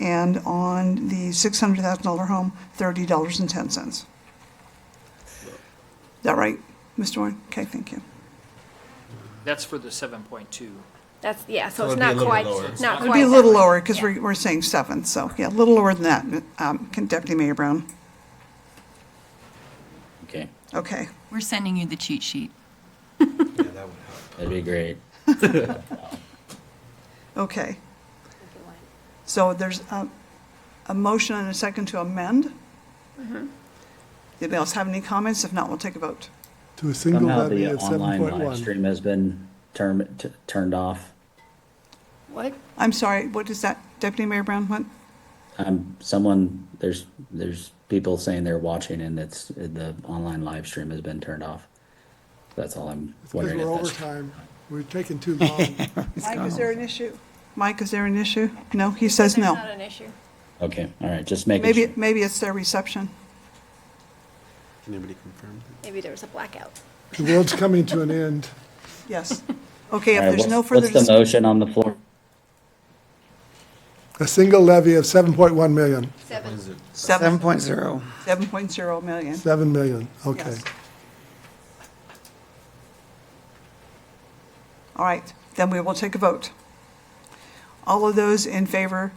and on the $600,000 home, $30.10. Is that right, Mr. Warren? Okay, thank you. That's for the seven point two. That's, yeah, so So it's it'd be a not little quite, lower. not It'd quite. be a little lower, because Yeah. we're, we're saying seven, so, yeah, a little lower than that, um, Can- Deputy Mayor Brown. Okay, Okay, We're sending you the cheat sheet. Yeah, that would help. that'd be great. okay. So there's a, a motion and a second to amend? Mm-hmm. Anybody else have any comments? If not, we'll take a vote. To a single Somehow levy the of online live 7.1. stream has been turned, t- turned off. What? I'm sorry, what is that, Deputy Mayor Brown, what? Um, someone, there's, there's people saying they're watching and it's, the online live stream has been turned off. That's all I'm It's because wondering we're if that's. overtime. We're taking too long. Mike, is there an issue? Mike, is there an issue? No, he says There's no. not an issue. Okay, all right, just making. Maybe, sure. maybe it's their reception. Anybody confirm? Maybe there was a blackout. The world's coming to an end. Yes. Okay, All if right, there's what's- no further, What's the dis- motion on the floor? A single levy of 7.1 million, Seven. Is it seven, 7.0. seven point zero million. 7 million, okay. Yes. All right, then we will take a vote. All of those in favor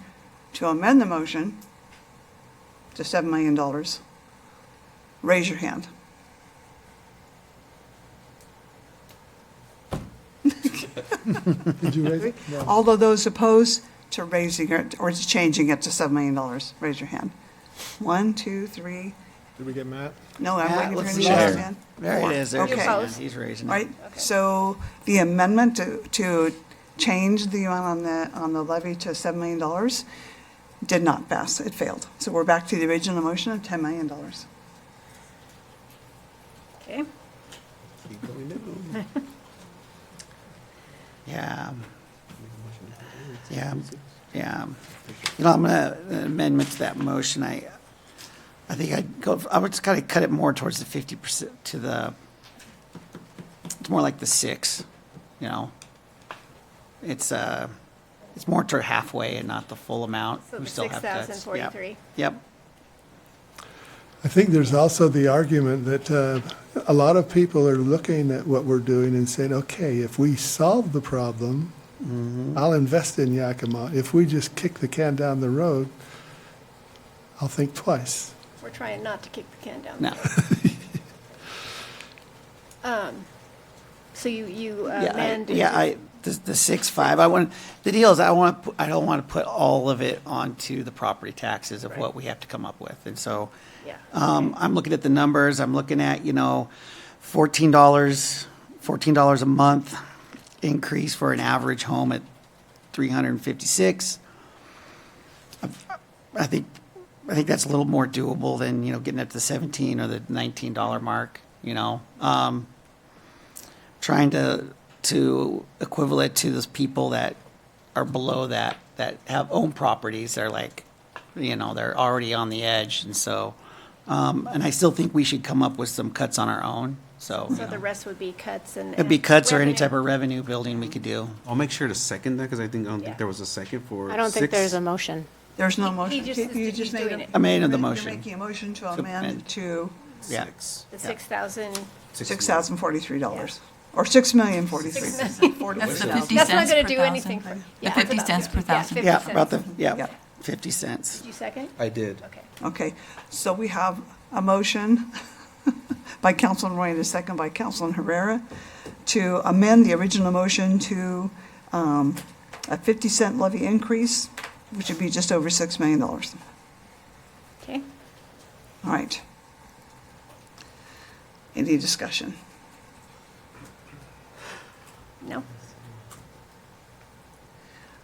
to amend the motion to $7 million, raise your hand. Did you raise it? No. All of those opposed to raising it or to changing it to $7 million, raise your hand. One, two, three, Did we get Matt? no, I'm Matt, waiting for let's him to see. raise his Sure. hand. There Four. it is. There it Okay, You're all is. opposed? He's raising it. right, so the amendment to, to change the amount on the, on the levy to $7 million did not pass, it failed. So we're back to the original motion of $10 million. Okay. legally new? Yeah. Yeah, yeah. You know, I'm gonna amendment to that motion. I, I think I'd go, I would just kind of cut it more towards the 50% to the, it's more like the six, you know? It's, uh, it's more to halfway and not the full amount. So We the still have that. Yep. 6,043. Yep. I think there's also the argument that uh, a lot of people are looking at what we're doing and saying, okay, if we solve the problem, Mm-hmm. I'll invest in Yakima. If we just kick the can down the road, I'll think twice. We're trying not to kick the can down. the No. road. So you, you uh, Yeah, I- amend. yeah, I, the, the six, five, I want, the deal is I want, to I don't want to put all of it onto the property taxes of what we have to come up with. And so, Yeah. um, I'm looking at the numbers, I'm looking at, you know, fourteen dollars, fourteen dollars a month increase for an average home at three hundred and fifty-six. I think, I think that's a little more doable than, you know, getting up to the seventeen or the nineteen dollar mark, you know? Um, trying to to equivalent to those people that are below that that have own properties they're like you know they're already on the edge and so um, and i still think we should come up with some cuts on our own so, you So the know. rest would be cuts and. it'd be cuts or any type revenue. of revenue building we could do I'll make sure to second that because I think, I don't Yeah. think there was a second for. I don't think six. there's a motion. There's no He- he motion. just You- is- you he's just made doing a- it. i made You're the motion making a motion to To amend amend. to yeah Six. The 6,000. Six $6,043, or $6,043,000. That's the 50 That's not cents going per to do anything. for- thousand. yeah, The 50 about cents per yeah, thousand. 50 yeah about the cents. yeah, Yeah. 50 cents Did you second? I did. Okay. Okay, so we have a motion by Councilman Roy and a second by Councilman Herrera to amend the original motion to um, a 50 cent levy increase, which would be just over $6 million. All Okay. right. Any discussion? No?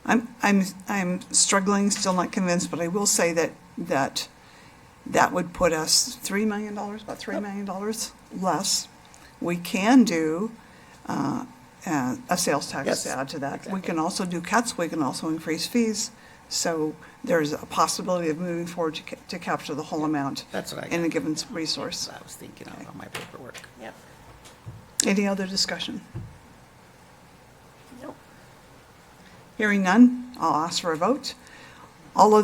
I'm, I'm, I'm struggling, still not convinced, but I will say that, that, that would put us $3 million, about $3 million less. We can do uh, uh, a sales tax Yes, to add to that. We can also do cuts, we can also increase fees. So there's a possibility of moving forward to ca- to capture the whole amount that's what i in a got. given s- resource. i was thinking of on my paperwork Yep. Any other discussion? Nope. Hearing none, I'll ask for a vote. All of